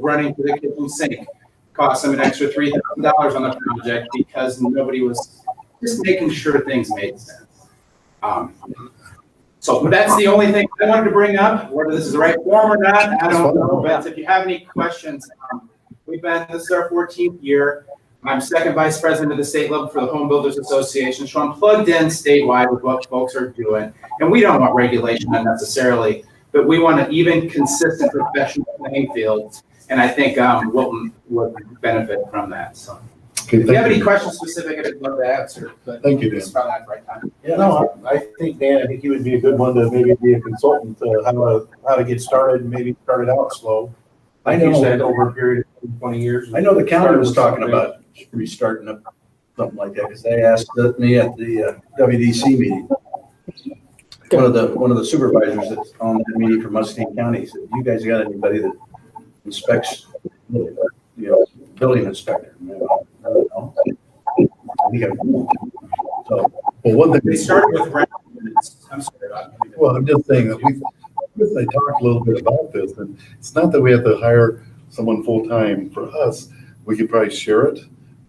running to the kitchen sink. Cost them an extra three thousand dollars on the project because nobody was just making sure things made sense. Um, So that's the only thing I wanted to bring up, whether this is the right form or not, I don't know, but if you have any questions, um, we've been, this is our fourteenth year. I'm second vice president of the state level for the Home Builders Association, so I'm plugged in statewide with what folks are doing. And we don't want regulation unnecessarily, but we want an even consistent professional playing field. And I think, um, Wilton would benefit from that, so. Okay, If you have thank any you. questions specific, I'd love to answer, but Thank you, Dan. it's probably not the right time. Yeah, no, I, I think, Dan, I think he would be a good one to maybe be a consultant, to how to, how to get started, and maybe start it out slow. I Like you know. said, over a period of twenty years. I know the county was Started talking with about restarting up something like that, because they asked me at the uh, WDC meeting. One of the, one of the supervisors that's on that meeting for Mustang County said, you guys got anybody that inspects, you know, building inspector? And I'm like, "I don't know." We got one. So, Well, one thing. They started with rent. I'm sorry about that. Well, I'm just saying that we've, we've they talked a little bit about this, and it's not that we have to hire someone full-time for us. We could probably share it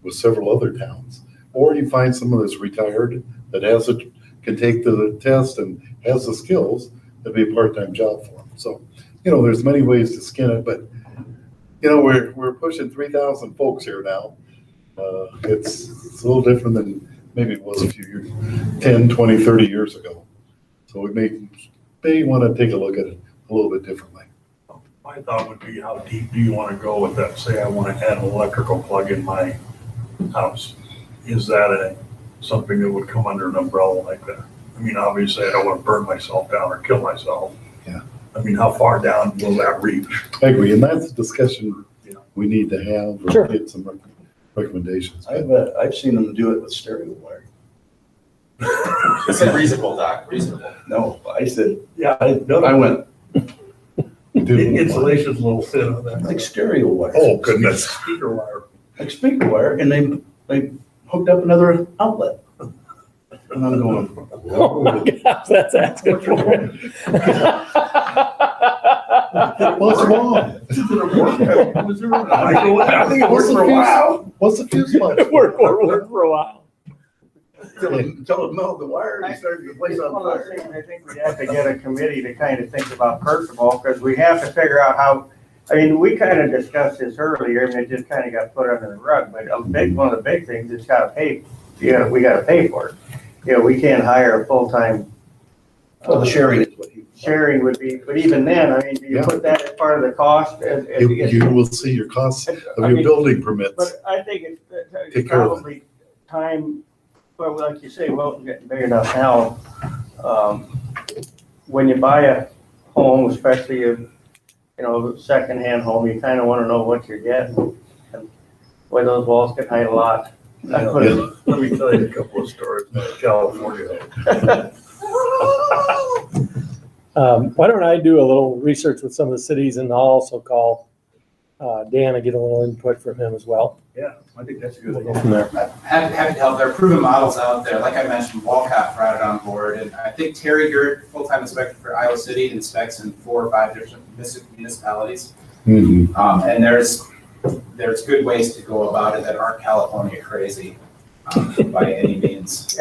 with several other towns. Or you find someone that's retired that has a, can take the test and has the skills, that'd be a part-time job for them. So, you know, there's many ways to skin it, but, you know, we're, we're pushing three thousand folks here now. Uh, it's, it's a little different than maybe it was a few years, 10, 20, 30 years ago. So we may, may want to take a look at it a little bit differently. My thought would be, how deep do you want to go with that? Say I want to add an electrical plug in my house. Is that a, something that would come under an umbrella like that? I mean, obviously, I don't want to burn myself down or kill myself. Yeah. I mean, how far down will that reach? I agree, and that's a discussion we need to have, Sure. or get some rec- recommendations. I've, uh, I've seen them do it with stereo wire. It said reasonable, Doc, reasonable. No, I said, Yeah, I, I went, We do- Insulation's a little thin on that. like stereo wire. Oh, goodness. Speaker wire. like speaker wire, and they they hooked up another outlet. And I'm going, Oh my gosh, that's asking for it. What's wrong? Was there a microwave? I think it worked for a while What's the fuse box? It worked for, worked for a while. until it, until it melted the wire and started the place on fire. I think we have to get a committee to kind of think about, first of all, because we have to figure out how, I mean, we kind of discussed this earlier, and it just kind of got put under the rug, but a big, one of the big things is gotta pay, you know, we gotta pay for it. You know, we can't hire a full-time. uh, Well, the sharing is what he. Sharing would be, but even then, I mean, do you Yeah. put that as part of the cost? as- as You, you get- you will see your costs I of your mean, building permits. But I think it's- it's Take it's care of it. probably time, well, like you say, Wilton's getting big enough now. Um, When you buy a home, especially a, you know, secondhand home, you kind of want to know what you're getting. and Whether those walls can hide a lot. I put it- Let me tell you a couple of stories about California. Um, why don't I do a little research with some of the cities and I'll also call, uh, Dan and get a little input from him as well. Yeah, I think that's a good We'll go idea. from there. Happy, happy to help. There are proven models out there. Like I mentioned, Walcott brought it on board, and I think Terry, you're full-time inspector for Iowa City, inspects in four or five different munis- municipalities. Mhm. Um, and there's, there's good ways to go about it that aren't California crazy, um, by any means.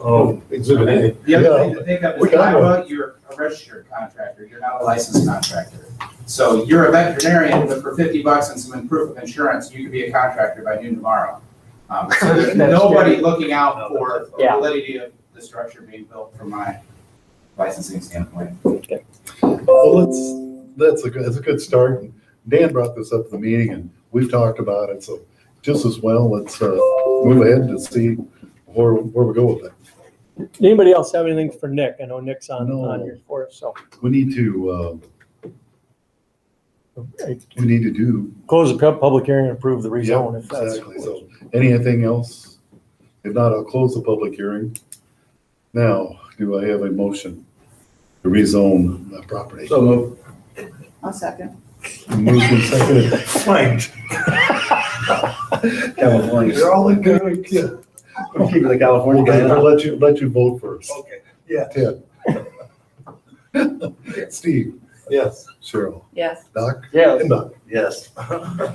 Oh, Exhibit A. The other thing to think of We is got Iowa, you're a registered contractor, you're not a licensed contractor. So you're a veterinarian, but for fifty bucks and some proof of insurance, you could be a contractor by noon tomorrow. Um, so there's That's nobody looking out for Yeah. validity of the structure being built from my licensing standpoint. Well, let's, that's a, good- that's a good start. And Dan brought this up at the meeting and we've talked about it, so just as well, let's, uh, move ahead to see where, where we go with it. Anybody else have anything for Nick? I know Nick's on, No. on here for us, so. We need to, uh, Okay. we need to do Close the pub- public hearing and approve the rezone if Yeah, that's. Exactly, so, anything else? If not, I'll close the public hearing. Now, do I have a motion to rezone the property? So move. I'll second. Moved and seconded. Flanked. California. You're all in good, yeah. I'm keeping the California guy. I'll out. let you, let you vote first. okay, yeah. Ted. Steve, Yes. Cheryl, Yes. Doc, Yes. and Doc. Yes.